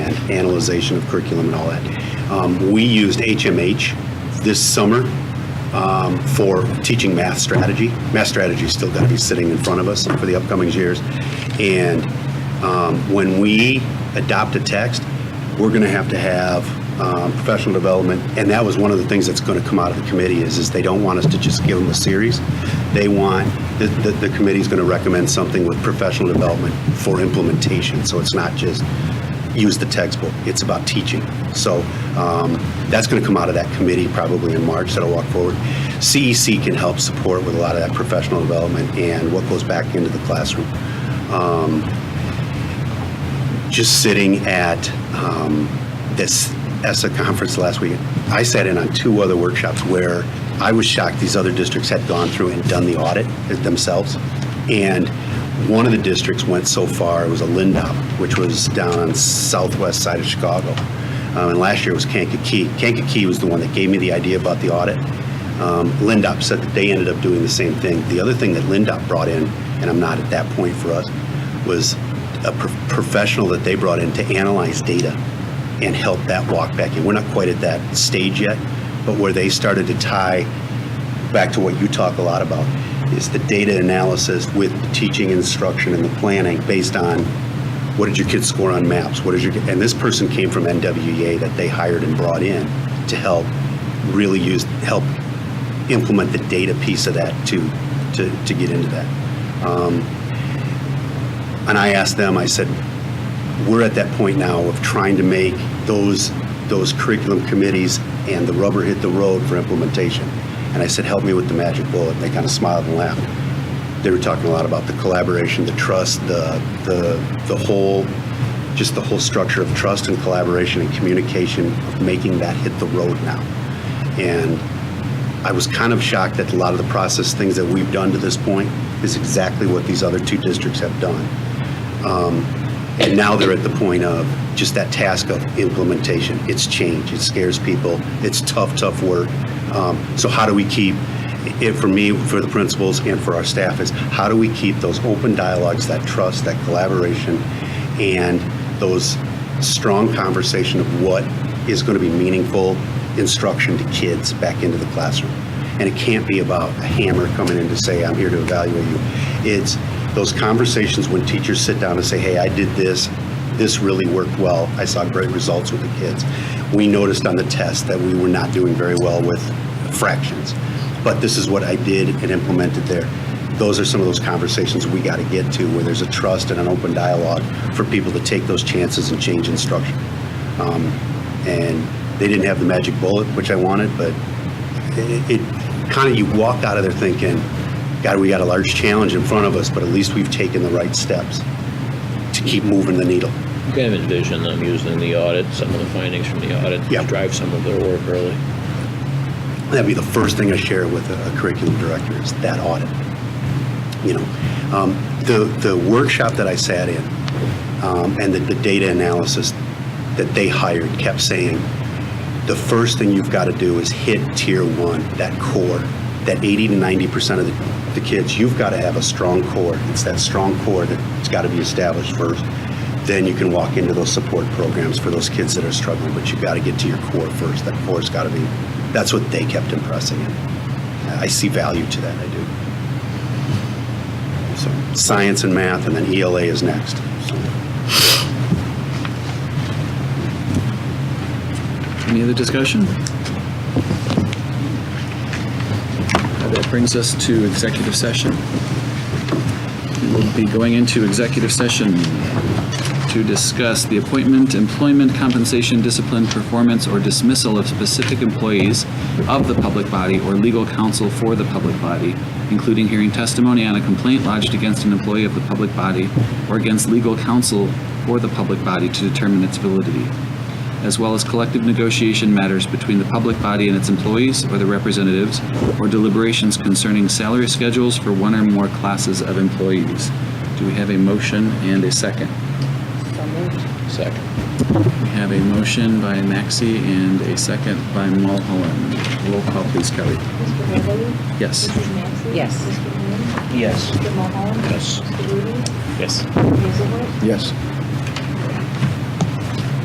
analyzation of curriculum and all that. Um, We used HMH this summer um, for teaching math strategy. Math strategy's still got to be sitting in front of us for the upcoming years. And um, when we adopt a text, we're going to have to have um, professional development, and that was one of the things that's going to come out of the committee is, is they don't want us to just give them a series. They want, the, the, the committee's going to recommend something with professional development for implementation, so it's not just use the textbook, it's about teaching. So um, that's going to come out of that committee probably in March that'll walk forward. CEC can help support with a lot of that professional development and what goes back into the classroom. Um, just sitting at um, this ESSA conference last week, I sat in on two other workshops where I was shocked these other districts had gone through and done the audit themselves. And one of the districts went so far, it was a Lindop, which was down on southwest side of Chicago. Um, And last year it was Kankakee. Kankakee was the one that gave me the idea about the audit. Um, Lindop said that they ended up doing the same thing. The other thing that Lindop brought in, and I'm not at that point for us, was a pro- professional that they brought in to analyze data and help that walk back in. We're not quite at that stage yet, but where they started to tie back to what you talk a lot about is the data analysis with the teaching instruction and the planning based on what did your kids score on maps? What is your and this person came from NWEA that they hired and brought in to help really use help implement the data piece of that to to, to get into that. Um, and I asked them, I said, we're at that point now of trying to make those, those curriculum committees and the rubber hit the road for implementation. And I said, help me with the magic bullet. And they kind of smiled and laughed. They were talking a lot about the collaboration, the trust, the, the, the whole, just the whole structure of trust and collaboration and communication of making that hit the road now. And I was kind of shocked that a lot of the process things that we've done to this point is exactly what these other two districts have done. Um, And now they're at the point of just that task of implementation. It's change, it scares people, it's tough, tough work. Um, So how do we keep, it, for me, for the principals and for our staff is, how do we keep those open dialogues, that trust, that collaboration, and those strong conversation of what is going to be meaningful instruction to kids back into the classroom. And it can't be about a hammer coming in to say, I'm here to evaluate you. It's those conversations when teachers sit down and say, hey, I did this, this really worked well, I saw great results with the kids. We noticed on the test that we were not doing very well with fractions, but this is what I did and implemented there those are some of those conversations we got to get to where there's a trust and an open dialogue for people to take those chances and change instruction. Um, and they didn't have the magic bullet, which I wanted, but it, it kind of you walk out of there thinking, God, we got a large challenge in front of us, but at least we've taken the right steps to keep moving the needle. You kind of envision them using the audit, some of the findings from the audit, Yeah. to drive some of their work early. That'd be the first thing I share with a a curriculum director is that audit. You know, um, the, the workshop that I sat in um, and the, the data analysis that they hired kept saying, the first thing you've got to do is hit tier one, that core, that 80 to 90% of the, the kids, you've got to have a strong core. It's that strong core that's got to be established first. Then you can walk into those support programs for those kids that are struggling, but you've got to get to your core first. That core's got to be, that's what they kept impressing. And I see value to that, I do. So science and math, and then ELA is next. So. Any other discussion? Uh, That brings us to executive session. We'll be going into executive session to discuss the appointment, employment, compensation, discipline, performance, or dismissal of specific employees of the public body or legal counsel for the public body, including hearing testimony on a complaint lodged against an employee of the public body or against legal counsel for the public body to determine its validity as well as collective negotiation matters between the public body and its employees or their representatives, or deliberations concerning salary schedules for one or more classes of employees. Do we have a motion and a second? Second. We have a motion by Maxi and a second by Mulholland. Roll call, please, Kelly. Mr. Beverly? Yes. Mrs. Maxey? Yes. Yes. Mr. Moon? Mr. Mulholland? Yes. Mr. Rudy? Yes. Mr. Hazelwood? Yes.